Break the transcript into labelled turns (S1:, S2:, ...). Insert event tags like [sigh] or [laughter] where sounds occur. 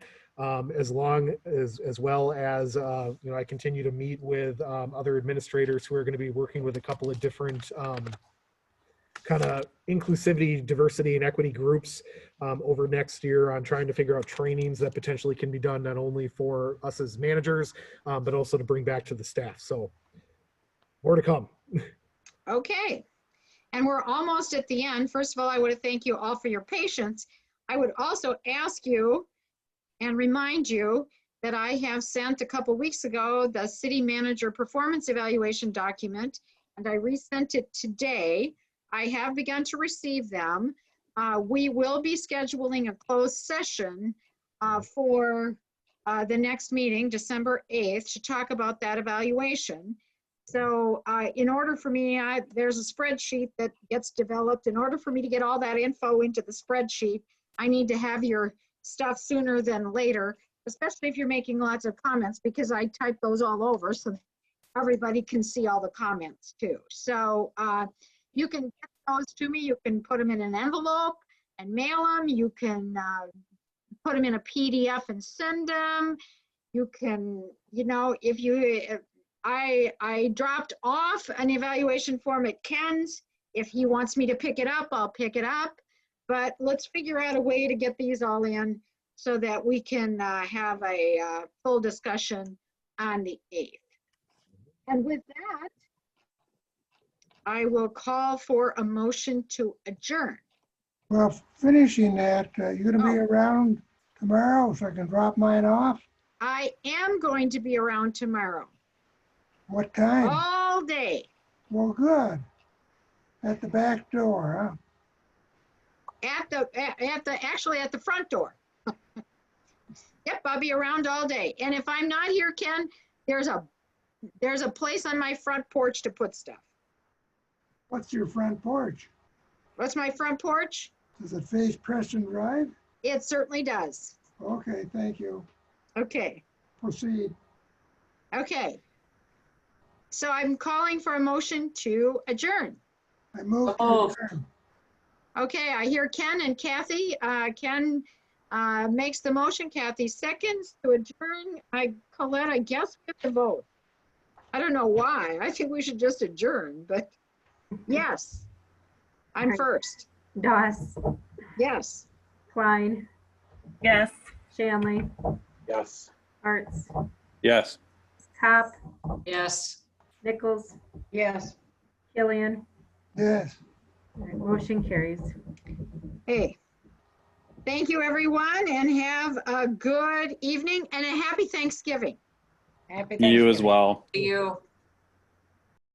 S1: um, as long as, as well as, uh, you know, I continue to meet with um, other administrators who are going to be working with a couple of different kind of inclusivity, diversity, and equity groups um, over next year on trying to figure out trainings that potentially can be done not only for us as managers, um, but also to bring back to the staff. So more to come.
S2: Okay. And we're almost at the end. First of all, I want to thank you all for your patience. I would also ask you and remind you that I have sent a couple weeks ago the city manager performance evaluation document, and I resent it today. I have begun to receive them. Uh, We will be scheduling a closed session uh, for uh, the next meeting, December 8th, to talk about that evaluation. So uh, in order for me, I, there's a spreadsheet that gets developed. In order for me to get all that info into the spreadsheet, I need to have your stuff sooner than later, especially if you're making lots of comments, because I type those all over so that everybody can see all the comments too. So uh, you can get those to me, you can put them in an envelope and mail them, you can uh, put them in a PDF and send them. You can, you know, if you, if- I, I dropped off an evaluation form at Ken's. If he wants me to pick it up, I'll pick it up. But let's figure out a way to get these all in so that we can uh, have a uh, full discussion on the 8th. And with that, I will call for a motion to adjourn.
S3: Well, finishing that, uh, you gonna be around tomorrow so I can drop mine off?
S2: I am going to be around tomorrow,
S3: What time?
S2: all day,
S3: Well, good. At the back door,
S2: at the, a- at the, actually at the front door. [laughs] Yep, I'll be around all day. And if I'm not here, Ken, there's a, there's a place on my front porch to put stuff.
S3: huh? What's your front porch?
S2: What's my front porch?
S3: Does it face Preston Drive?
S2: It certainly does.
S3: Okay, thank you.
S2: Okay,
S3: Proceed.
S2: okay. So I'm calling for a motion to adjourn.
S3: I move to
S4: Oh.
S3: adjourn.
S2: Okay, I hear Ken and Kathy. Uh, Ken uh, makes the motion, Kathy seconds to adjourn. I, Colette, I guess we have to vote. I don't know why. I think we should just adjourn, but yes. I'm first.
S5: Doss,
S2: Yes.
S5: Klein,
S4: Yes.
S5: Shanley,
S4: Yes.
S5: Arts,
S6: Yes.
S5: Hop,
S4: Yes.
S5: Nichols,
S2: Yes.
S5: Killian.
S3: Yes.
S5: All right, Motion carries.
S2: Hey. Thank you, everyone, and have a good evening and a happy Thanksgiving.
S6: You as well.
S4: You.